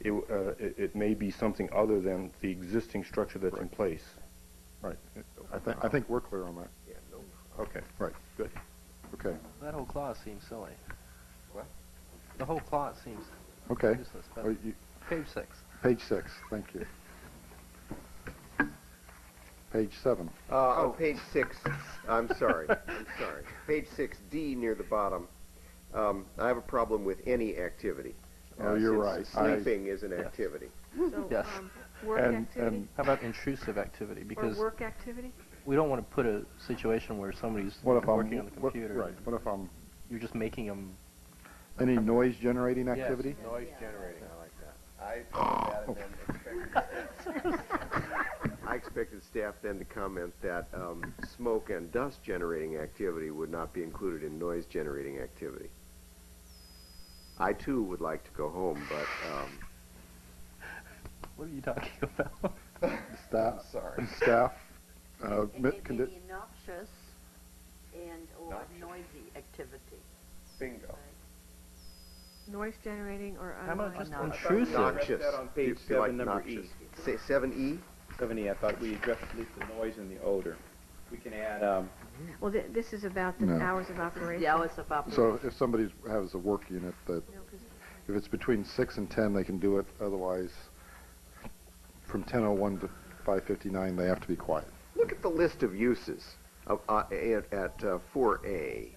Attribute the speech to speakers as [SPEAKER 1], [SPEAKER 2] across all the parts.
[SPEAKER 1] it, uh, it it may be something other than the existing structure that's in place.
[SPEAKER 2] Right. I think, I think we're clear on that.
[SPEAKER 1] Okay,
[SPEAKER 2] Right.
[SPEAKER 1] good.
[SPEAKER 2] Okay.
[SPEAKER 3] That whole clause seems silly.
[SPEAKER 1] What?
[SPEAKER 3] The whole clause seems
[SPEAKER 2] Okay.
[SPEAKER 3] useless, but
[SPEAKER 2] Oh, you-
[SPEAKER 3] page six.
[SPEAKER 2] Page six, thank you. Page seven.
[SPEAKER 4] Uh, on page six, I'm sorry, I'm sorry. Page six D near the bottom, um, I have a problem with any activity.
[SPEAKER 2] Oh,
[SPEAKER 4] uh,
[SPEAKER 2] you're
[SPEAKER 4] since
[SPEAKER 2] right. I-
[SPEAKER 4] Sleeping is an
[SPEAKER 3] Yes.
[SPEAKER 4] activity.
[SPEAKER 5] So,
[SPEAKER 3] Yes.
[SPEAKER 5] um, work
[SPEAKER 2] And-
[SPEAKER 5] activity,
[SPEAKER 3] How about intrusive activity?
[SPEAKER 5] or
[SPEAKER 3] Because
[SPEAKER 5] work activity?
[SPEAKER 3] we don't want to put a situation where somebody's
[SPEAKER 2] What if I'm?
[SPEAKER 3] working on the
[SPEAKER 2] what-
[SPEAKER 3] computer.
[SPEAKER 2] Right, what if I'm,
[SPEAKER 3] You're just making them.
[SPEAKER 2] any noise generating activity?
[SPEAKER 6] Noise generating, I like that.
[SPEAKER 4] I expected staff then to comment that, um, smoke and dust generating activity would not be included in noise generating activity. I too would like to go home, but, um,
[SPEAKER 3] What are you talking about?
[SPEAKER 2] Staff, staff, uh,
[SPEAKER 7] It
[SPEAKER 2] mi-
[SPEAKER 7] may
[SPEAKER 2] condi-
[SPEAKER 7] be noxious and/or noisy activity.
[SPEAKER 2] Oh.
[SPEAKER 6] Bingo.
[SPEAKER 5] Noise generating or um, uh,
[SPEAKER 3] How about
[SPEAKER 5] unwanted?
[SPEAKER 3] just intrusive?
[SPEAKER 4] noxious.
[SPEAKER 6] that on
[SPEAKER 4] Do you
[SPEAKER 6] page
[SPEAKER 4] feel like
[SPEAKER 6] seven, number E.
[SPEAKER 4] noxious? Say, seven E?
[SPEAKER 6] Seventy, I thought we addressed at least the noise and the odor. We can add, um,
[SPEAKER 5] Well, thi- this is about the
[SPEAKER 2] No.
[SPEAKER 5] hours of operation.
[SPEAKER 7] The hours of
[SPEAKER 2] so
[SPEAKER 7] operation.
[SPEAKER 2] if somebody has a work unit that,
[SPEAKER 5] No, 'cause-
[SPEAKER 2] if it's between six and ten, they can do it, otherwise, from ten oh one to five fifty-nine, they have to be quiet.
[SPEAKER 4] Look at the list of uses of, uh, at, at uh, 4A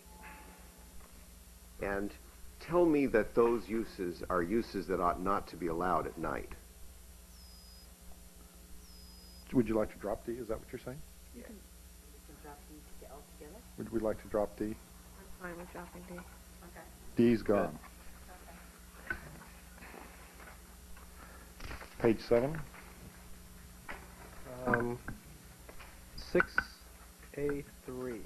[SPEAKER 4] and tell me that those uses are uses that ought not to be allowed at night.
[SPEAKER 2] Would you like to drop D, is that what you're saying?
[SPEAKER 7] You can drop these to- altogether.
[SPEAKER 2] Would we like to drop D?
[SPEAKER 5] I'm fine with dropping D.
[SPEAKER 2] D's gone. Page seven,
[SPEAKER 3] Um, six A three.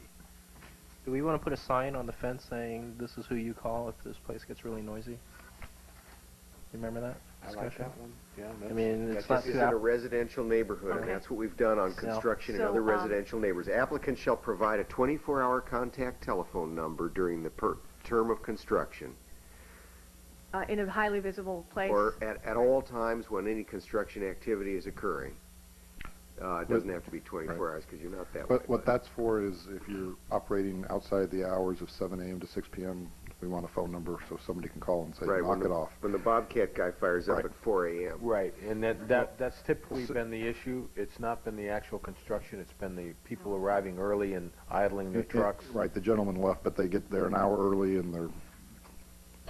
[SPEAKER 3] Do we want to put a sign on the fence saying this is who you call if this place gets really noisy? You remember that discussion?
[SPEAKER 6] one. Yeah,
[SPEAKER 3] I mean,
[SPEAKER 6] that
[SPEAKER 3] it's
[SPEAKER 4] This
[SPEAKER 3] not
[SPEAKER 4] is
[SPEAKER 3] too
[SPEAKER 4] in a
[SPEAKER 3] app-
[SPEAKER 4] residential neighborhood, and
[SPEAKER 5] Okay.
[SPEAKER 4] that's what we've done on
[SPEAKER 3] So-
[SPEAKER 4] construction and
[SPEAKER 5] So,
[SPEAKER 4] other
[SPEAKER 5] um,
[SPEAKER 4] residential neighbors. Applicants shall provide a 24-hour contact telephone number during the per- term of construction
[SPEAKER 5] Uh, in a highly visible place.
[SPEAKER 4] or at, at all times when any construction activity is occurring. Uh, it doesn't have to be 24
[SPEAKER 2] Right.
[SPEAKER 4] hours because you're not that way.
[SPEAKER 2] but what
[SPEAKER 4] but-
[SPEAKER 2] that's for is if you're operating outside the hours of seven AM to six PM, we want a phone number so somebody can call and say,
[SPEAKER 4] Right, when
[SPEAKER 2] knock
[SPEAKER 4] the-
[SPEAKER 2] it off.
[SPEAKER 4] When the Bobcat guy fires up
[SPEAKER 2] Right.
[SPEAKER 4] at 4 a.m.
[SPEAKER 8] Right, and that, that, that's typically been the issue. It's not been the actual construction, it's been the people arriving early and idling their
[SPEAKER 2] It- it-
[SPEAKER 8] trucks.
[SPEAKER 2] Right, the gentleman left, but they get there an hour early and they're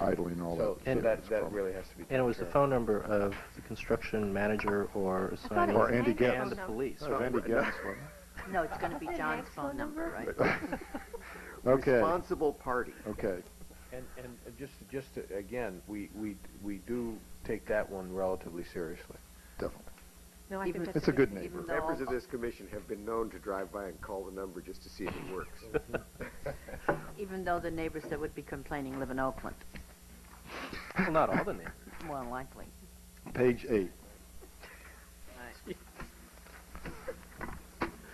[SPEAKER 2] idling and all that.
[SPEAKER 8] So, so
[SPEAKER 3] And-
[SPEAKER 8] that,
[SPEAKER 2] that's a
[SPEAKER 8] that
[SPEAKER 2] problem.
[SPEAKER 8] really has to be.
[SPEAKER 3] and it was the
[SPEAKER 8] taken care of.
[SPEAKER 3] phone number of the construction manager or
[SPEAKER 5] I thought it
[SPEAKER 3] assignee
[SPEAKER 2] Or
[SPEAKER 5] was
[SPEAKER 2] Andy
[SPEAKER 5] Andy's
[SPEAKER 2] Getz.
[SPEAKER 5] phone
[SPEAKER 3] and the
[SPEAKER 5] number.
[SPEAKER 3] police.
[SPEAKER 2] That was Andy Getz, wasn't it?
[SPEAKER 7] No, it's going to be John's phone number, right?
[SPEAKER 2] Okay,
[SPEAKER 4] Responsible party.
[SPEAKER 2] okay.
[SPEAKER 8] And, and uh, just, just, uh, again, we, we, we do take that one relatively seriously.
[SPEAKER 2] Definitely.
[SPEAKER 5] No, I
[SPEAKER 7] Even-
[SPEAKER 5] think that's.
[SPEAKER 2] It's a good
[SPEAKER 7] Even
[SPEAKER 2] neighbor.
[SPEAKER 7] though-
[SPEAKER 4] Members of this commission have been known to drive by and call the number just to see if it works.
[SPEAKER 7] Even though the neighbors that would be complaining live in Oakland,
[SPEAKER 3] Well, not all the neighbors.
[SPEAKER 7] more than likely.
[SPEAKER 2] Page eight.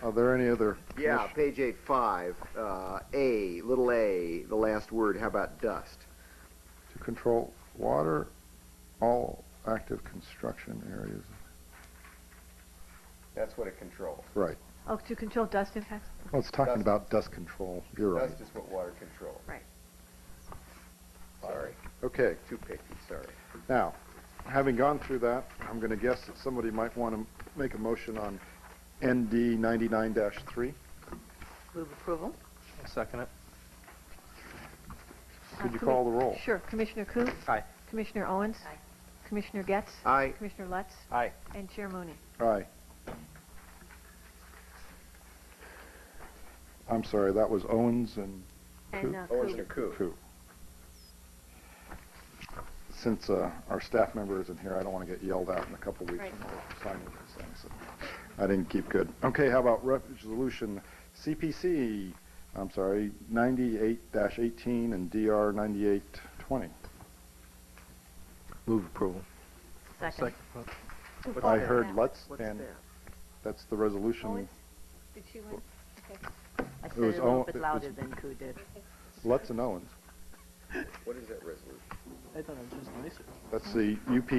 [SPEAKER 2] Are there any other?
[SPEAKER 4] yeah,
[SPEAKER 2] commis-
[SPEAKER 4] page 8, 5, uh, A, little a, the last word, how about dust?
[SPEAKER 2] To control water, all active construction areas.
[SPEAKER 6] That's what it controls.
[SPEAKER 2] Right.
[SPEAKER 5] Oh, to control dust impacts?
[SPEAKER 2] Well, it's talking
[SPEAKER 6] Dust.
[SPEAKER 2] about dust control. You're right.
[SPEAKER 6] That's just what water controls.
[SPEAKER 4] Sorry,
[SPEAKER 2] Okay.
[SPEAKER 4] too picky, sorry.
[SPEAKER 2] Now, having gone through that, I'm going to guess that somebody might want to make a motion on ND 99-3.
[SPEAKER 7] Move approval?
[SPEAKER 3] I'll second it.
[SPEAKER 5] Uh,
[SPEAKER 2] Could you
[SPEAKER 5] commi-
[SPEAKER 2] call the roll?
[SPEAKER 5] Sure. Commissioner Coop?
[SPEAKER 3] Aye.
[SPEAKER 5] Commissioner Owens?
[SPEAKER 7] Aye.
[SPEAKER 5] Commissioner Getz?
[SPEAKER 4] Aye.
[SPEAKER 5] Commissioner Lutz?
[SPEAKER 8] Aye.
[SPEAKER 5] And Chair Mooney?
[SPEAKER 2] Aye. I'm sorry, that was Owens and
[SPEAKER 5] And,
[SPEAKER 2] Coop?
[SPEAKER 5] uh,
[SPEAKER 6] Orange
[SPEAKER 5] Coop.
[SPEAKER 6] and coup.
[SPEAKER 2] Coop. Since uh, our staff member isn't here, I don't want to get yelled at in a couple weeks
[SPEAKER 5] Right.
[SPEAKER 2] when we're signing these things. so I didn't keep good. Okay, how about resolution CPC, I'm sorry, 98-18 and DR 98-20?
[SPEAKER 3] Move approval.
[SPEAKER 7] Second.
[SPEAKER 2] I
[SPEAKER 5] that? Oh,
[SPEAKER 2] heard Lutz,
[SPEAKER 4] What's
[SPEAKER 2] and
[SPEAKER 4] that?
[SPEAKER 2] that's the resolution.
[SPEAKER 5] Owens? Did she win? Okay.
[SPEAKER 7] I
[SPEAKER 2] It
[SPEAKER 7] said it a
[SPEAKER 2] was all-
[SPEAKER 7] little
[SPEAKER 2] it
[SPEAKER 7] bit
[SPEAKER 2] was-
[SPEAKER 7] louder than Ku did.
[SPEAKER 2] Lutz and Owens.
[SPEAKER 4] What is that resolution?
[SPEAKER 3] I thought it was just nicer.
[SPEAKER 5] Oh.
[SPEAKER 2] That's the UP